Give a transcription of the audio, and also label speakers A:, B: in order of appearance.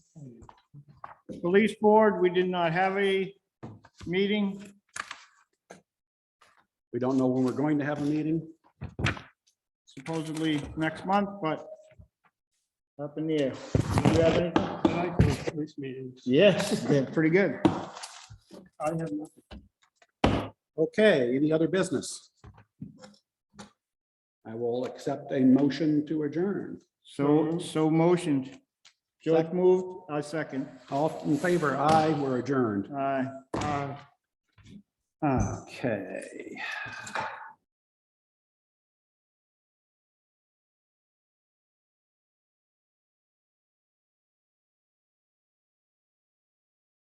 A: The police board, we did not have a meeting.
B: We don't know when we're going to have a meeting.
A: supposedly next month, but up in the air. Do you have anything?
C: I like those police meetings.
A: Yes, they're pretty good.
C: I have nothing.
B: Okay, any other business? I will accept a motion to adjourn.
A: So, so motioned. George moved, I second.
B: All in favor, aye, we're adjourned.
A: Aye.
C: Uh,
B: Okay.